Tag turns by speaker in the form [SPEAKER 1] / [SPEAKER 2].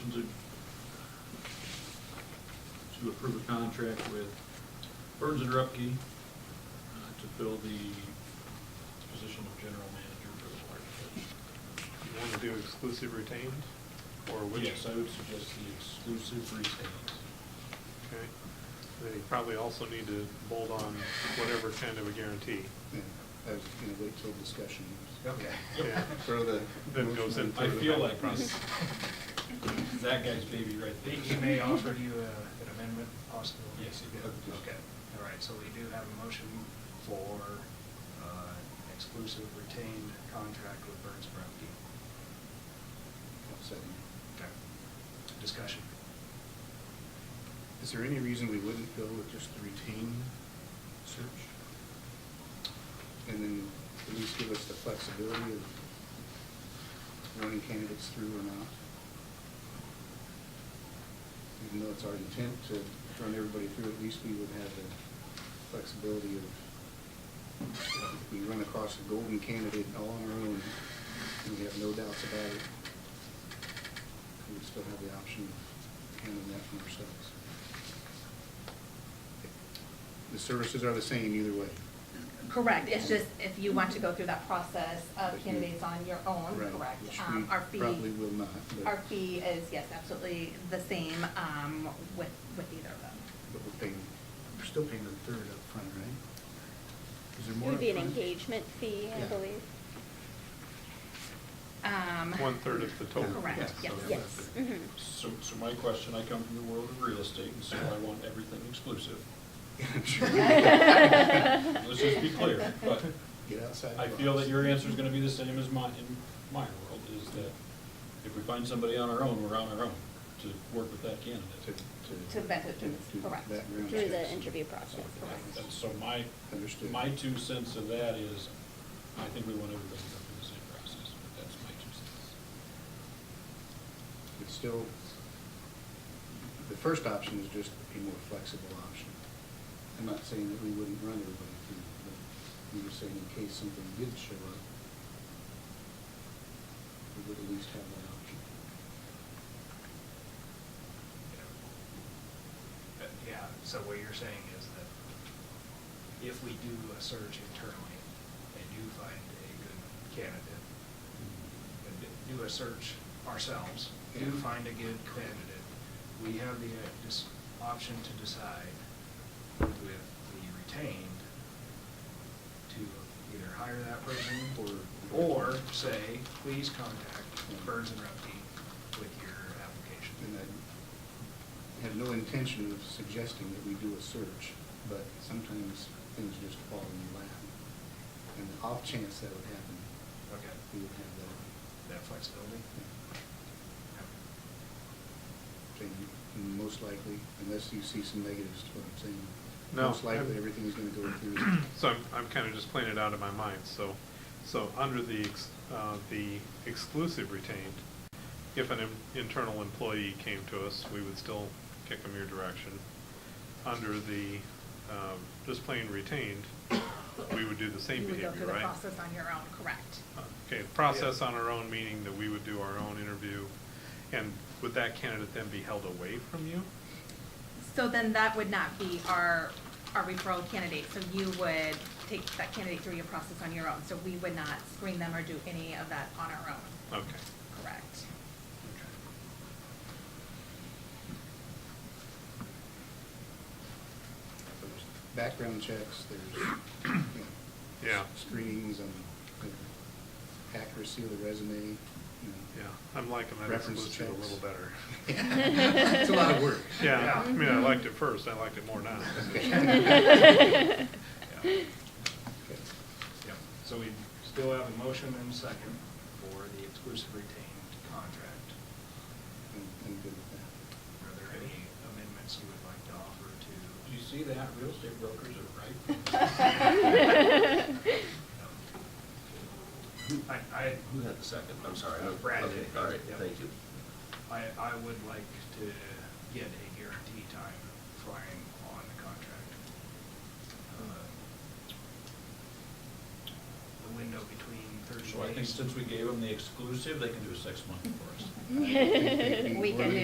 [SPEAKER 1] motion to, to approve a contract with Burns and Rupke uh, to fill the position of general manager for the water district.
[SPEAKER 2] You want to do exclusive retained, or which?
[SPEAKER 1] Yes, I would suggest the exclusive retained.
[SPEAKER 2] Okay. Then you probably also need to bolt on whatever kind of a guarantee.
[SPEAKER 3] Yeah, I was gonna wait till discussion.
[SPEAKER 2] Yeah.
[SPEAKER 3] Sort of the.
[SPEAKER 2] Then goes
[SPEAKER 3] motion-
[SPEAKER 2] into-
[SPEAKER 1] I feel like
[SPEAKER 2] Process.
[SPEAKER 1] that guy's baby right there.
[SPEAKER 4] He may offer you a- an amendment possible.
[SPEAKER 1] Yes, he did.
[SPEAKER 4] Okay, all right, so we do have a motion for uh, exclusive retained contract with Burns Brumke.
[SPEAKER 3] I'll second.
[SPEAKER 4] Okay. Discussion.
[SPEAKER 3] Is there any reason we wouldn't go with just the retain search? And then at least give us the flexibility of running candidates through or not? Even though it's our intent to run everybody through, at least we would have the flexibility of, if we run across a golden candidate all on our own, and we have no doubts about it, we would still have the option of handling that from ourselves. The services are the same either way.
[SPEAKER 5] Correct, it's just if you want to go through that process
[SPEAKER 3] But
[SPEAKER 5] of
[SPEAKER 3] you-
[SPEAKER 5] candidates on your own,
[SPEAKER 3] Right,
[SPEAKER 5] Oh, correct.
[SPEAKER 3] which
[SPEAKER 5] Um,
[SPEAKER 3] we
[SPEAKER 5] Our fee,
[SPEAKER 3] Probably will not, but,
[SPEAKER 5] our fee is, yes, absolutely the same um, with, with either of them.
[SPEAKER 3] but we're paying, we're still paying the third up front, right? Is there
[SPEAKER 6] It
[SPEAKER 3] more?
[SPEAKER 6] would be an
[SPEAKER 3] upfront?
[SPEAKER 6] engagement fee, I
[SPEAKER 3] Yeah.
[SPEAKER 6] believe.
[SPEAKER 5] Um,
[SPEAKER 2] One-third of the total.
[SPEAKER 3] Yeah,
[SPEAKER 5] Correct,
[SPEAKER 3] so
[SPEAKER 5] yes.
[SPEAKER 3] that's
[SPEAKER 6] Yes.
[SPEAKER 3] it.
[SPEAKER 6] Mhm.
[SPEAKER 1] So, so my question, I come from the world of real estate, and so I want everything exclusive.
[SPEAKER 3] I'm sure.
[SPEAKER 1] Let's just be clear, but
[SPEAKER 3] Get outside. the
[SPEAKER 1] I feel
[SPEAKER 3] box.
[SPEAKER 1] that your answer's gonna be the same as mine, in my world, is that if we find somebody on our own, we're on our own to work with that candidate.
[SPEAKER 3] To, to.
[SPEAKER 5] Mm-hmm. To vet it,
[SPEAKER 3] to- to
[SPEAKER 5] correct.
[SPEAKER 3] background
[SPEAKER 6] Through the
[SPEAKER 3] checks.
[SPEAKER 6] interview process.
[SPEAKER 5] Correct.
[SPEAKER 1] And so my,
[SPEAKER 3] Understood.
[SPEAKER 1] my two cents of that is, I think we want everybody to go through the same process, but that's my two cents.
[SPEAKER 3] It's still, the first option is just a more flexible option. I'm not saying that we wouldn't run everybody through, but we were saying in case something did show up, we would at least have that option.
[SPEAKER 4] But, Yeah, so what you're saying is that if we do a search internally and do find a good candidate, and do a search ourselves, do
[SPEAKER 3] Yeah.
[SPEAKER 4] find a good candidate, we have the uh, dis- option to decide with the retained to either hire that person
[SPEAKER 3] Or-
[SPEAKER 4] or say, please contact Burns and Repke with your application.
[SPEAKER 3] And I have no intention of suggesting that we do a search, but sometimes things just fall in your lap. And the off chance that would happen,
[SPEAKER 4] Okay,
[SPEAKER 3] we would have that.
[SPEAKER 4] that flexibility? Okay.
[SPEAKER 3] saying most likely, unless you see some negatives to what I'm saying.
[SPEAKER 2] No,
[SPEAKER 3] Most likely,
[SPEAKER 2] I'm-
[SPEAKER 3] everything's gonna go through.
[SPEAKER 2] So I'm, I'm kind of just playing it out of my mind, so, so under the, ex- uh, the exclusive retained, if an im- internal employee came to us, we would still kick them your direction. Under the, um, just plain retained, we would do the same
[SPEAKER 5] You would
[SPEAKER 2] behavior,
[SPEAKER 5] go
[SPEAKER 2] right?
[SPEAKER 5] through the process on your own, correct.
[SPEAKER 2] Okay, process on our own, meaning that we would do our own interview, and would that candidate then be held away from you?
[SPEAKER 5] So then that would not be our, our referral candidate, so you would take that candidate through your process on your own. So we would not screen them or do any of that on our own,
[SPEAKER 2] Okay,
[SPEAKER 5] correct.
[SPEAKER 3] There's Background checks, there's, you know,
[SPEAKER 2] Yeah.
[SPEAKER 3] Screenings and you know, accuracy of the resume, you
[SPEAKER 2] yeah,
[SPEAKER 3] know.
[SPEAKER 2] I'm liking that
[SPEAKER 3] Reference
[SPEAKER 2] exclusive a
[SPEAKER 3] checks.
[SPEAKER 2] little better.
[SPEAKER 3] It's a lot of work.
[SPEAKER 2] Yeah, I mean, I liked it first, I liked it more now.
[SPEAKER 6] Mm-hmm.
[SPEAKER 4] Yeah.
[SPEAKER 3] Okay.
[SPEAKER 4] Yep, so we still have a motion and a second for the exclusive retained contract.
[SPEAKER 3] I'm, I'm good with
[SPEAKER 4] Are there any amendments you would like to offer to?
[SPEAKER 1] Do you see that? Real estate brokers are right.
[SPEAKER 4] I, I,
[SPEAKER 7] Who had the second? I'm sorry. I-
[SPEAKER 4] Uh, Brad
[SPEAKER 7] okay,
[SPEAKER 4] did.
[SPEAKER 7] All right,
[SPEAKER 4] Yep.
[SPEAKER 7] thank you.
[SPEAKER 4] I, I would like to get a guarantee time flying on the contract. Uh, The window between Thursday.
[SPEAKER 1] So I think since we gave them the exclusive, they can do a six-month for us.
[SPEAKER 3] that. I think we-
[SPEAKER 5] We can
[SPEAKER 3] we're-
[SPEAKER 5] do